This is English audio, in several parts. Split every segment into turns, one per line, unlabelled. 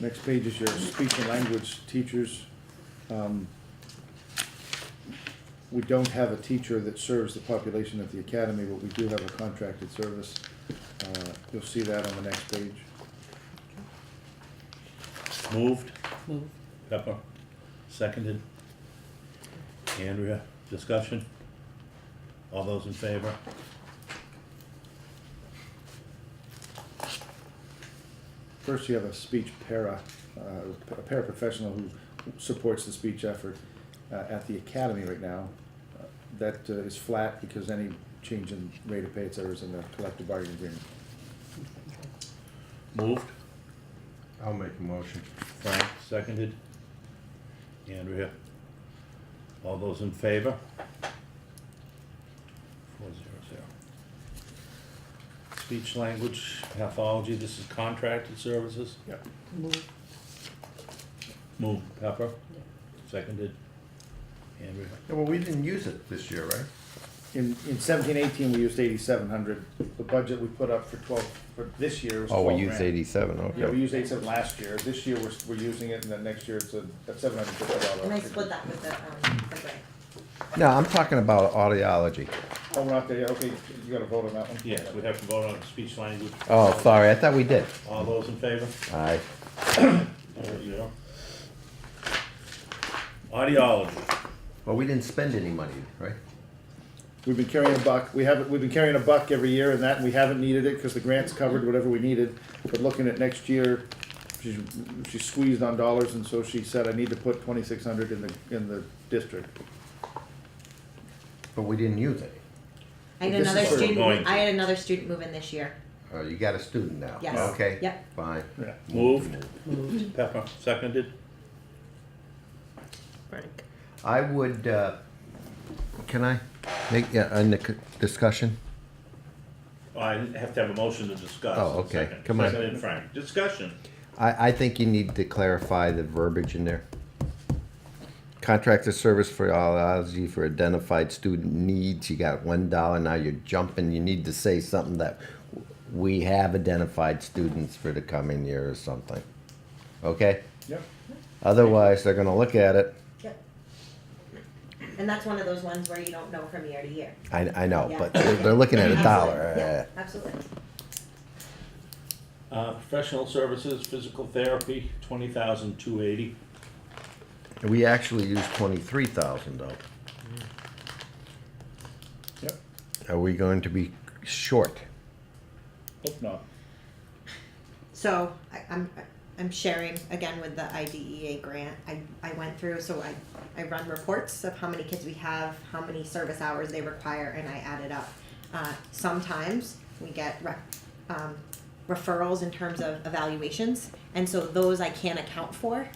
Next page is your speech and language teachers. Um, We don't have a teacher that serves the population of the academy, but we do have a contracted service. Uh, You'll see that on the next page.
Moved,
Move.
Pepper, seconded. Andrea, discussion? All those in favor?
First, you have a speech para, uh, a paraprofessional who supports the speech effort uh, at the academy right now. Uh, That uh, is flat because any change in rate of pay, et cetera, is in the collective bargaining agreement.
Moved,
I'll make a motion.
Frank, seconded. Andrea, all those in favor? Four zero zero. Speech, language, pathology, this is contracted services.
Yep.
Move.
Moved, Pepper, seconded. Andrea,
Yeah, well, we didn't use it this year, right?
In, in seventeen eighteen, we used eighty-seven hundred. The budget we put up for twelve, for this year was
Oh,
twelve
we
grand.
used eighty-seven,
Yeah, we
okay.
used eighty-seven last year. This year, we're, we're using it, and then next year, it's a, that's seven hundred fifty
And I
dollars.
split that with the, um, the grant.
No, I'm talking about audiology.
Oh, we're not there, yet. okay, you gotta vote on that one?
yes, we have to vote on speech, language.
Oh, sorry, I thought we did.
All those in favor?
Aye.
There you go. Audiology,
Well, we didn't spend any money, right?
We've been carrying a buck, we haven't, we've been carrying a buck every year and that, and we haven't needed it, cause the grants covered whatever we needed. But looking at next year, she's, she squeezed on dollars, and so she said, I need to put twenty-six hundred in the, in the district.
But we didn't use any.
I had
This is
another
what we're
going
student,
to.
I had another student move in this year.
Uh, you got a student now?
Yes.
Okay.
Yep.
Fine.
Yeah.
moved. Pepper, seconded.
Frank.
I would, uh, can I make, yeah, on the c- discussion?
Oh, I have to have a motion to discuss.
Oh, okay.
Second.
Come on.
Seconded, Frank. Discussion.
I, I think you need to clarify the verbiage in there. Contracted service for audiology for identified student needs, you got one dollar, now you're jumping, you need to say something that we have identified students for the coming year or something. Okay?
Yep.
Otherwise, they're gonna look at it,
Yep. And that's one of those ones where you don't know from year to year.
I, I know,
Yeah.
Oh, but they're, they're looking at a
Absolutely. Yeah,
dollar.
Absolutely.
Uh, professional services, physical therapy, twenty thousand two eighty.
Uh, We actually use twenty-three thousand though.
Mm. Yep,
Are we going to be short?
hope not.
So I, I'm, I'm sharing again with the IDEA grant. I, I went through, so I, I run reports of how many kids we have, how many service hours they require, and I add it up. Uh, sometimes we get rec, um, referrals in terms of evaluations, and so those I can't account for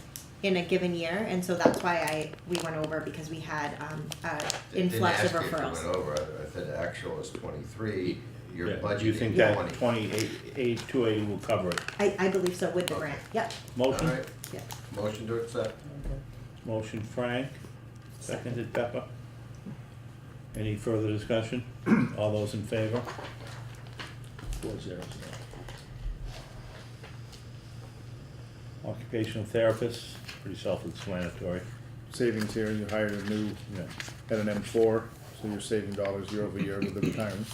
in a given year, and so that's why I, we went over because we had, um, uh, influx of referrals.
over, I said actual is twenty-three,
Yeah, You think that twenty-eight, eight, two eighty will cover it?
I, I believe so with the
Okay.
grant, yep,
Motion,
yep.
motion to accept.
motion Frank, seconded Pepper. Any further discussion? All those in favor? Four zero zero. Occupational therapist, pretty self-explanatory,
Savings here, you hired a new,
yeah.
at an M four, so you're saving dollars year over year with the retirement.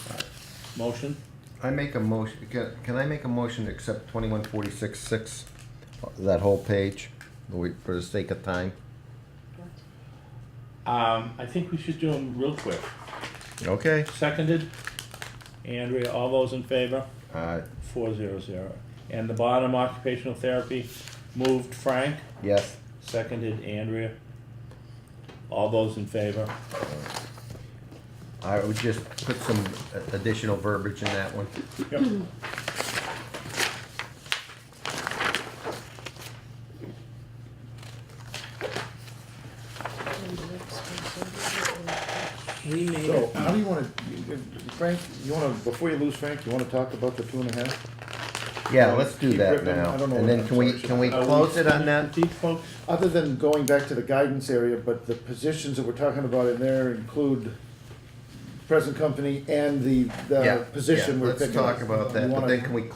Motion,
I make a motion, can, can I make a motion to accept twenty-one forty-six six, that whole page, we- for the sake of time?
um, I think we should do them real quick.
Okay.
Seconded, Andrea, all those in favor?
Uh,
Four zero zero. And the bottom occupational therapy, moved Frank,
yes,
seconded Andrea. All those in favor?
I would just put some additional verbiage in that one.
Yep.
We made
So,
it.
how do you wanna, Frank, you wanna, before you lose Frank, you wanna talk about the two and a half?
Yeah, let's do
Keep
that
ripping.
now,
I don't know
and
what
then
I'm
can we,
sorry.
can we
Are we
close it on
finished
that?
with These folks,
Other than going back to the guidance area, but the positions that we're talking about in there include present company and the,
Yeah,
the position
yeah,
we're picking up.
uh, Let's talk about
You
that, but
wanna-
then can we